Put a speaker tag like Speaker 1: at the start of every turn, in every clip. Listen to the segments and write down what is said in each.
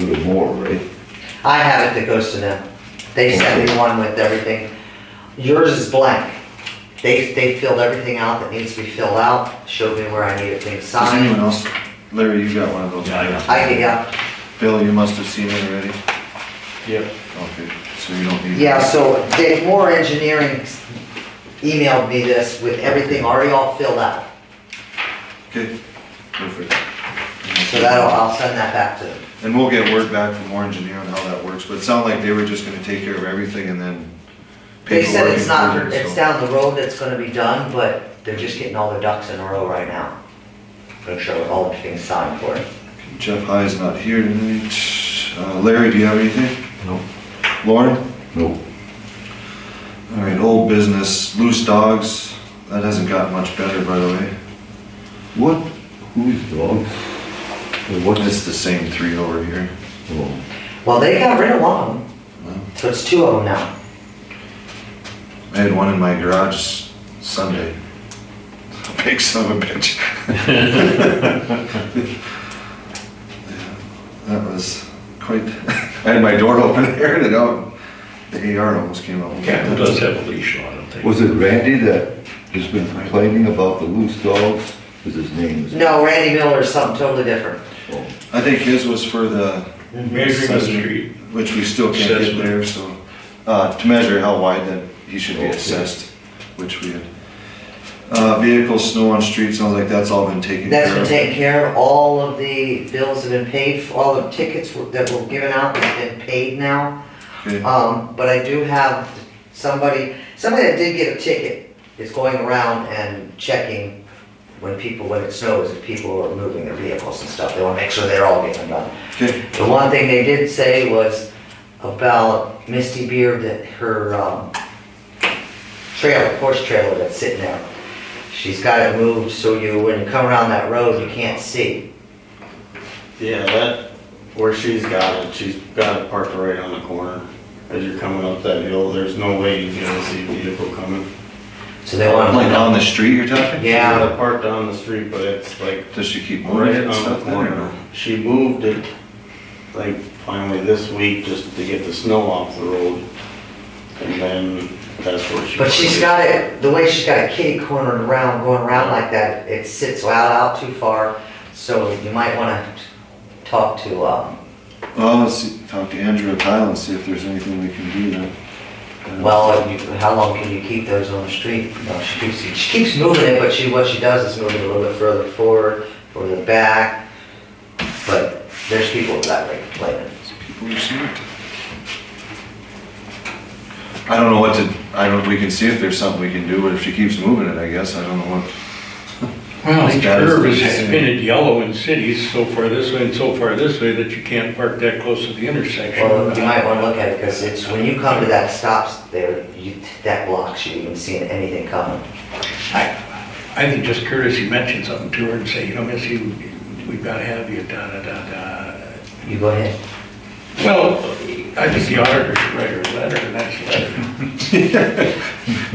Speaker 1: little more, right?
Speaker 2: I have it that goes to them. They sent me one with everything. Yours is blank. They, they filled everything out that needs to be filled out, showed me where I needed things
Speaker 3: Does anyone
Speaker 2: signed.
Speaker 3: else, Larry, you got one of those?
Speaker 4: Yeah, I got
Speaker 2: I, yeah,
Speaker 3: Bill, you must have seen it already.
Speaker 4: Yep.
Speaker 3: Okay, so you don't need.
Speaker 2: yeah, so Dave Moore Engineering emailed me this with everything already all filled out.
Speaker 3: Okay, perfect.
Speaker 2: So that'll, I'll send that back to them.
Speaker 3: And we'll get word back from Warren Engineer on how that works, but it sounded like they were just gonna take care of everything and then.
Speaker 2: They said
Speaker 3: paperwork
Speaker 2: it's not,
Speaker 3: included,
Speaker 2: it's
Speaker 3: so-
Speaker 2: down the road that's gonna be done, but they're just getting all their ducks in a row right now. I'm sure with all the things signed for it.
Speaker 3: Jeff High is not here tonight. Uh, Larry, do you have anything?
Speaker 1: No.
Speaker 3: Lauren?
Speaker 1: Nope.
Speaker 3: All right, old business, loose dogs. That hasn't gotten much better, by the way.
Speaker 1: What, whose dog? Or What is,
Speaker 3: It's the same three over here.
Speaker 1: oh,
Speaker 2: Well, they got rid of one of them,
Speaker 3: Well,
Speaker 2: so it's two of them now.
Speaker 3: I had one in my garage Sunday. Big son of a bitch. That was quite, I had my door open, aired it out. The AR almost came out.
Speaker 4: Cat does have a leash on, I don't think.
Speaker 1: was it Randy that has been complaining about the loose dogs? Was his name? is-
Speaker 2: No, Randy Miller is something totally different.
Speaker 1: Oh,
Speaker 3: I think his was for the,
Speaker 4: Measuring the street.
Speaker 3: which we still can't get
Speaker 4: Assessment.
Speaker 3: there, so, uh, to measure how wide that he should be
Speaker 1: Okay.
Speaker 3: assessed, which we had. Uh, vehicles, snow on streets, sounds like that's all been taken care of.
Speaker 2: That's been taken care of, all of the bills have been paid, all the tickets were- that were given out have been paid now.
Speaker 3: Okay.
Speaker 2: Um, but I do have somebody, somebody that did get a ticket is going around and checking when people, when it snows, if people are moving their vehicles and stuff, they wanna make sure they're all getting done.
Speaker 3: Okay,
Speaker 2: The one thing they did say was about Misty Beard, that her, um, trailer, horse trailer that's sitting there. She's got it moved so you, when you come around that road, you can't see.
Speaker 5: Yeah, that, where she's got it, she's got it parked right on the corner. As you're coming up that hill, there's no way you're gonna see a vehicle coming.
Speaker 2: So they want
Speaker 3: like um,
Speaker 2: to,
Speaker 3: on the street you're talking?
Speaker 5: She
Speaker 2: yeah, Oh,
Speaker 5: got it parked on the street, but it's like
Speaker 3: Does she keep moving
Speaker 5: right um,
Speaker 3: it and
Speaker 5: on
Speaker 3: stuff
Speaker 5: the
Speaker 3: then or
Speaker 5: corner.
Speaker 3: no?
Speaker 5: She moved it, like, finally this week, just to get the snow off the road. And then that's where she.
Speaker 2: but she's got it, the way she's got it kitty cornered around, going around like that, it sits out, out too far. So you might want to talk to, um,
Speaker 3: Well, let's see, talk to Andrew Tile and see if there's anything we can do then.
Speaker 2: Well, you, how long can you keep those on the street? No, she keeps, she keeps moving it, but she, what she does is move it a little bit further forward, further back. But there's people that way complaining.
Speaker 3: People are smart. I don't know what to, I don't, we can see if there's something we can do, but if she keeps moving it, I guess, I don't know what.
Speaker 6: Well, each
Speaker 3: That is
Speaker 6: curve is
Speaker 3: interesting.
Speaker 6: painted yellow in cities, so far this way and so far this way, that you can't park that close to the intersection.
Speaker 2: Well, you might wanna look at it, cause it's, when you come to that stops there, you, that blocks you even seeing anything coming.
Speaker 6: I think just courtesy mention something to her and say, you know, miss, you, we've got to have you, da, da, da, da.
Speaker 2: You go ahead.
Speaker 6: Well, I think the auditor should write her a letter, a nice letter.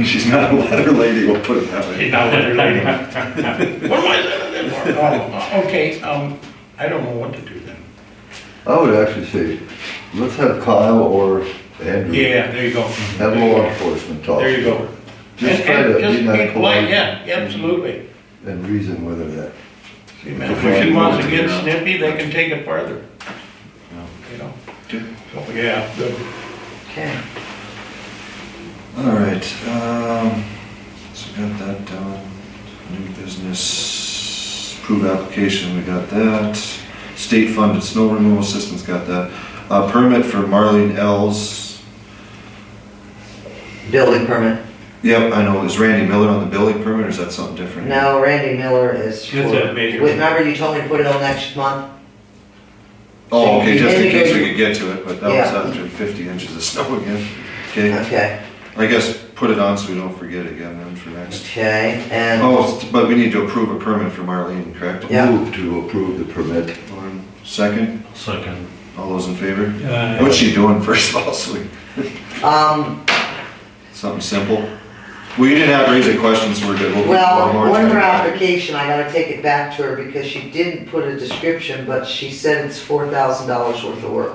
Speaker 3: She's not a letter lady, we'll put it that way.
Speaker 6: Not letter lady. What am I letter for? Oh, Okay, um, I don't know what to do then.
Speaker 1: I would actually say, let's have Kyle or Andrew.
Speaker 6: Yeah, there you go.
Speaker 1: Have law enforcement talk.
Speaker 6: There you go.
Speaker 1: Just
Speaker 6: And-
Speaker 1: try
Speaker 6: and
Speaker 1: to
Speaker 6: just
Speaker 1: be not polite.
Speaker 6: Yeah, absolutely.
Speaker 1: And reason whether that.
Speaker 6: See, man, If she
Speaker 3: Before-
Speaker 6: wants to get snippy, they can take it farther. You know?
Speaker 3: Good.
Speaker 6: So, yeah, good.
Speaker 2: Okay.
Speaker 3: All right, um, so we got that done. New business, approved application, we got that. State funded snow removal assistance, got that. Uh, permit for Marlene Els.
Speaker 2: Building permit.
Speaker 3: Yep, I know, is Randy Miller on the building permit or is that something different?
Speaker 2: No, Randy Miller is for,
Speaker 4: That's a major-
Speaker 2: remember you told me to put it on next month?
Speaker 3: Oh, okay, just in
Speaker 2: Maybe
Speaker 3: case
Speaker 2: go-
Speaker 3: we could get to it, but that was
Speaker 2: Yeah.
Speaker 3: after fifty inches of snow again. Okay,
Speaker 2: Okay,
Speaker 3: I guess put it on so we don't forget again then for next.
Speaker 2: okay, and.
Speaker 3: Oh, s- but we need to approve a permit for Marlene, correct?
Speaker 2: Yeah.
Speaker 1: Move to approve the permit.
Speaker 3: Lauren, Second,
Speaker 4: Second.
Speaker 3: all those in favor?
Speaker 4: Uh,
Speaker 3: What's she doing first of all, so we,
Speaker 2: Um,
Speaker 3: something simple? Well, you didn't have raise any questions, so we're good. We'll-
Speaker 2: Well,
Speaker 3: we'll-
Speaker 2: one more application, I gotta take it back to her because she didn't put a description, but she said it's four thousand dollars worth of work.